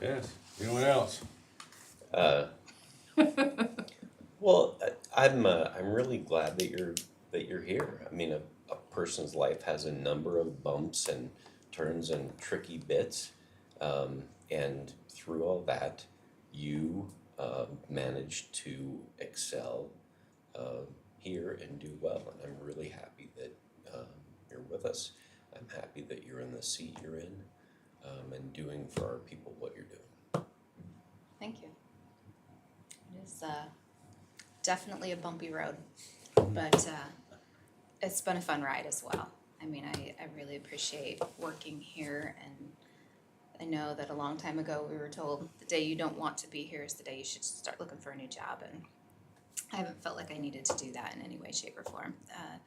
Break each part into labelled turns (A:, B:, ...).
A: Yes, anyone else?
B: Uh, well, I, I'm uh, I'm really glad that you're that you're here. I mean, a, a person's life has a number of bumps and turns and tricky bits, um, and through all that, you uh, managed to excel uh, here and do well. And I'm really happy that um, you're with us. I'm happy that you're in the seat you're in, um, and doing for our people what you're doing.
C: Thank you. It is uh, definitely a bumpy road, but uh, it's been a fun ride as well. I mean, I, I really appreciate working here, and I know that a long time ago we were told the day you don't want to be here is the day you should start looking for a new job, and I haven't felt like I needed to do that in any way, shape, or form. Uh,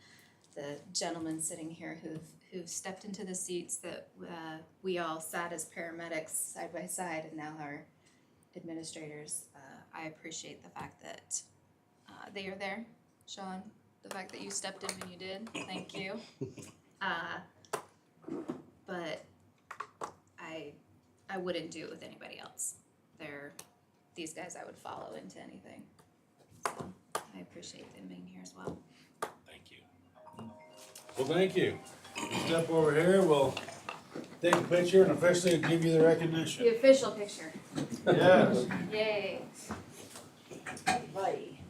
C: the gentlemen sitting here who've who've stepped into the seats that uh, we all sat as paramedics side by side, and now are administrators, uh, I appreciate the fact that uh, they are there, Sean. The fact that you stepped in when you did, thank you. Uh, but I, I wouldn't do it with anybody else. They're these guys I would follow into anything. So I appreciate them being here as well.
A: Thank you. Well, thank you. Step over here, we'll take a picture and officially give you the recognition.
C: The official picture.
A: Yes.
C: Yay. Buddy.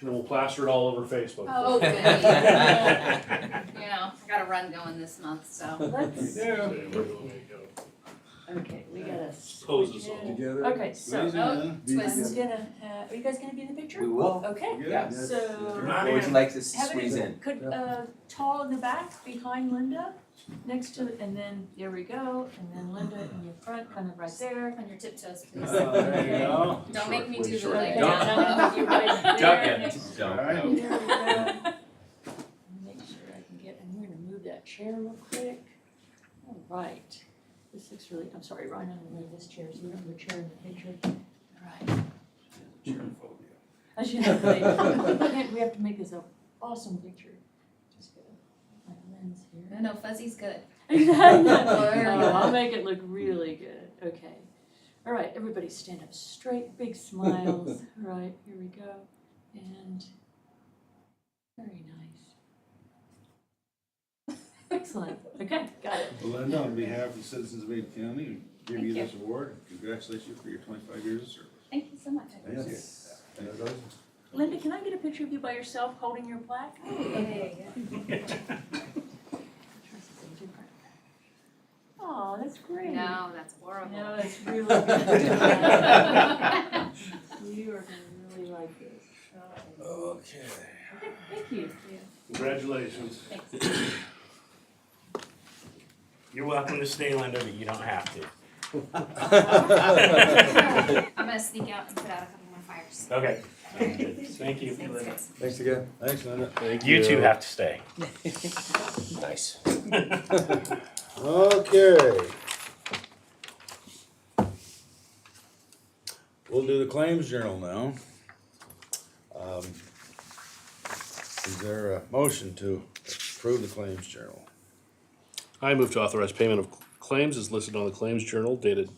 D: and we'll plaster it all over Facebook.
C: Oh, goody. You know, I got a run going this month, so.
E: Let's,
A: Yeah.
E: okay, we gotta.
D: Pose
E: switch
D: us all.
E: in.
F: Together.
E: Okay, so,
A: Easy,
E: oh,
A: huh?
E: this is
C: Twist.
E: gonna, uh, are you guys gonna be in the picture?
F: We will.
E: Okay,
A: oh, Yeah.
F: Yes.
E: so,
F: Or would you like to s-
E: have
F: squeeze
E: it,
F: in?
E: could, uh, tall in the back, behind Linda, next to, and then, there we go, and then Linda in your front, kind of right there.
C: On your tiptoes, please.
A: Uh, There you go.
C: Don't make me do the
E: Sure.
C: like
E: Okay,
C: down.
E: now you guys there.
A: All right.
E: There we go. Make sure I can get, I'm gonna move that chair real quick. All right. This looks really, I'm sorry, Ryan, I'm gonna move this chair, so we don't have a chair in the picture. All right. I should have, made- we have to make this an awesome picture. Just gonna, put my lens
C: No,
E: here.
C: no, fuzzy's good.
E: No, I'll make it look really good, okay. All right, everybody stand up straight, big smiles, all right, here we go, and very nice. Excellent, okay, got it.
A: Belinda, on behalf of the citizens of Ada County, we give you
C: Thank you.
A: this award. Congratulations you for your twenty-five years of service.
C: Thank you so much.
A: Thank you. Thank you.
E: Linda, can I get a picture of you by yourself holding your plaque? Oh, that's great.
C: No, that's horrible.
E: No, it's really good. You are gonna really like this. Oh,
A: Okay.
E: Thank you.
D: Congratulations.
C: Thanks.
G: You're welcome to stay, Linda, but you don't have to.
C: I'm gonna sneak out and put out a couple more fires.
G: Okay. Thank you.
C: Thanks, guys.
F: Thanks again.
A: Thanks, Linda.
G: You two have to stay.
B: Nice.
A: Okay. We'll do the claims journal now. Um, Is there a motion to approve the claims journal?
D: I move to authorize payment of claims as listed on the claims journal dated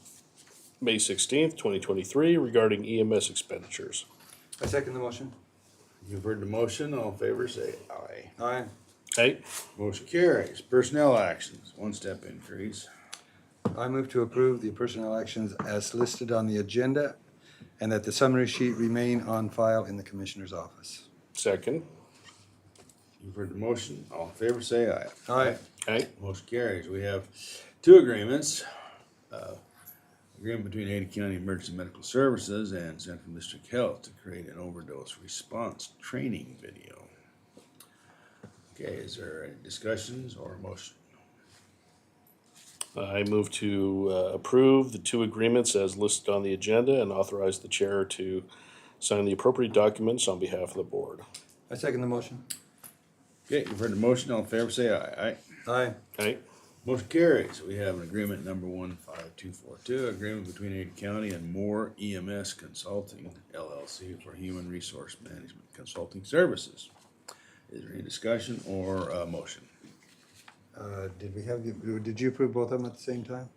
D: May sixteenth, twenty twenty-three regarding EMS expenditures.
F: I second the motion.
A: You've heard the motion, all in favor say aye.
F: Aye.
D: Hey,
A: Motion carries. Personnel actions, one step increase.
F: I move to approve the personnel actions as listed on the agenda and that the summary sheet remain on file in the commissioner's office.
D: second.
A: You've heard the motion, all in favor say aye.
F: Aye.
D: Hey,
A: Motion carries. We have two agreements. uh, Agreement between Ada County Emergency Medical Services and Central District Health to create an overdose response training video. Okay, is there any discussions or motion?
D: I move to uh, approve the two agreements as listed on the agenda and authorize the chair to sign the appropriate documents on behalf of the board.
F: I second the motion.
A: Okay, you've heard the motion. All in favor, say aye. Aye.
F: Aye.
D: Hey,
A: Motion carries. We have an agreement number one five two four two, agreement between Ada County and Moore EMS Consulting LLC for Human Resource Management Consulting Services. Is there any discussion or uh motion?
F: Uh, did we have, the- did you approve both of them at the same time?